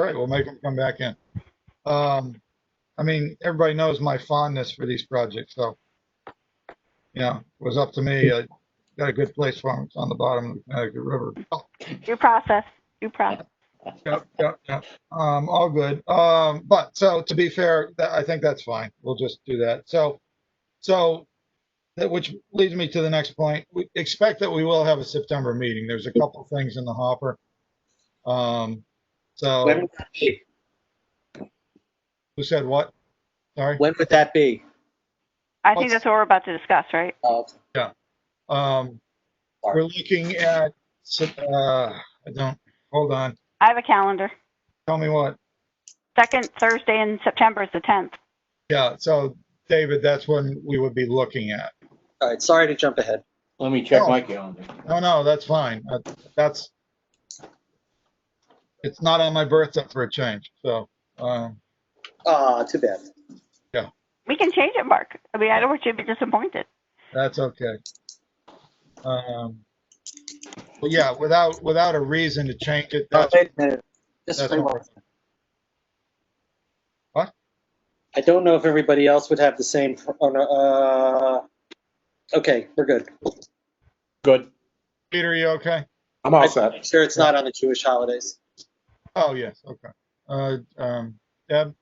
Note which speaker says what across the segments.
Speaker 1: right, we'll make them come back in. Um, I mean, everybody knows my fondness for these projects, so. You know, it was up to me. I got a good place for them. It's on the bottom of the Connecticut River. Oh,
Speaker 2: Due process, due process.
Speaker 1: Yep, yep, yep. Um, all good. Um, but so to be fair, that, I think that's fine. We'll just do that. So, so that, which leads me to the next point. We expect that we will have a September meeting. There's a couple things in the hopper. Um,
Speaker 3: When
Speaker 1: so
Speaker 3: would that be?
Speaker 1: who said what? Sorry.
Speaker 3: When would that be?
Speaker 2: I think
Speaker 1: Let's-
Speaker 2: that's what we're about to discuss, right?
Speaker 3: Uh,
Speaker 1: Um, we're looking at, s- uh, I don't, hold on.
Speaker 2: I have a calendar.
Speaker 1: Tell me what.
Speaker 2: Second Thursday in September is the 10th.
Speaker 1: Yeah. So David, that's when we would be looking at.
Speaker 3: All right, sorry to jump ahead.
Speaker 4: Let me check my calendar.
Speaker 1: No, no, that's fine. That- That's, it's not on my birthday for a change, so, um,
Speaker 3: Ah, too bad.
Speaker 2: We can change it, Mark. I mean, I don't want you to be disappointed.
Speaker 1: that's okay. Um, But yeah, without, without a reason to change it,
Speaker 3: Uh,
Speaker 1: that's,
Speaker 3: Wait a minute. Just
Speaker 1: that's
Speaker 3: wait
Speaker 1: all
Speaker 3: one
Speaker 1: right.
Speaker 3: second.
Speaker 1: What?
Speaker 3: I don't know if everybody else would have the same, pr- oh, no, uh, okay, we're good.
Speaker 5: Good.
Speaker 1: Peter, you okay?
Speaker 5: I'm all set.
Speaker 3: Sure, it's not on the Jewish holidays.
Speaker 1: Oh, yes, okay. Uh, um, Deb,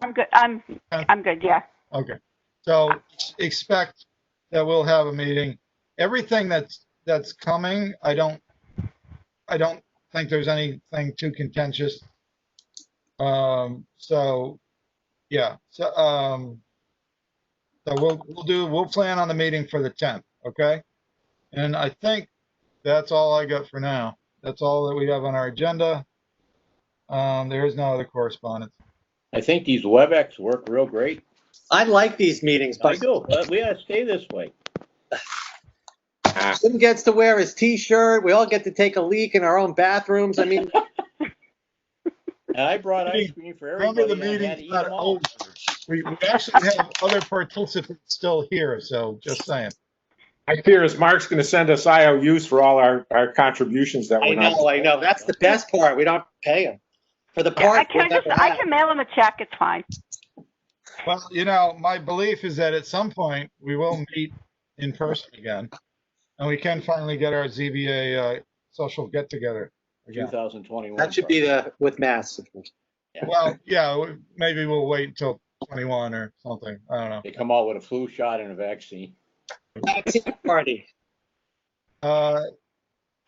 Speaker 2: I'm good. I'm, I'm good, yeah.
Speaker 1: okay. So expect that we'll have a meeting. Everything that's, that's coming, I don't, I don't think there's anything too contentious. Um, so, yeah, so, um, so we'll, we'll do, we'll plan on the meeting for the tenth, okay? And I think that's all I got for now. That's all that we have on our agenda. Um, there is no other correspondence.
Speaker 4: I think these WebEx work real great.
Speaker 3: I like these meetings,
Speaker 4: I
Speaker 3: but
Speaker 4: do. but We gotta stay this way.
Speaker 3: Jim gets to wear his t-shirt, we all get to take a leak in our own bathrooms, I mean,
Speaker 4: And I brought ice cream for
Speaker 1: Remember
Speaker 4: everybody.
Speaker 1: the
Speaker 4: and I had to
Speaker 1: meeting's
Speaker 4: eat
Speaker 1: not
Speaker 4: them all.
Speaker 1: over. We, we actually have other participants still here, so just saying.
Speaker 5: My fear is Mark's going to send us IOUs for all our, our contributions that
Speaker 3: I
Speaker 5: we're not.
Speaker 3: know, I know, that's the best part, we don't pay him. For the
Speaker 2: I
Speaker 3: part we'll
Speaker 2: can just,
Speaker 3: never
Speaker 2: I
Speaker 3: have.
Speaker 2: can mail him a check. It's fine.
Speaker 1: Well, you know, my belief is that at some point we will meet in person again. And we can finally get our ZBA, uh, social get together again.
Speaker 4: 2021.
Speaker 3: That should be the, with masks.
Speaker 1: Well, yeah, we- maybe we'll wait until twenty-one or something. I don't
Speaker 4: They come out with a flu shot and a vaccine.
Speaker 3: Vaccine Party.
Speaker 1: know. Uh,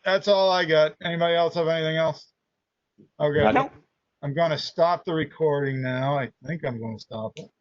Speaker 1: that's all I got. Anybody else have anything else? Okay,
Speaker 4: Nothing.
Speaker 2: Nope.
Speaker 1: I'm gonna stop the recording now. I think I'm gonna stop it.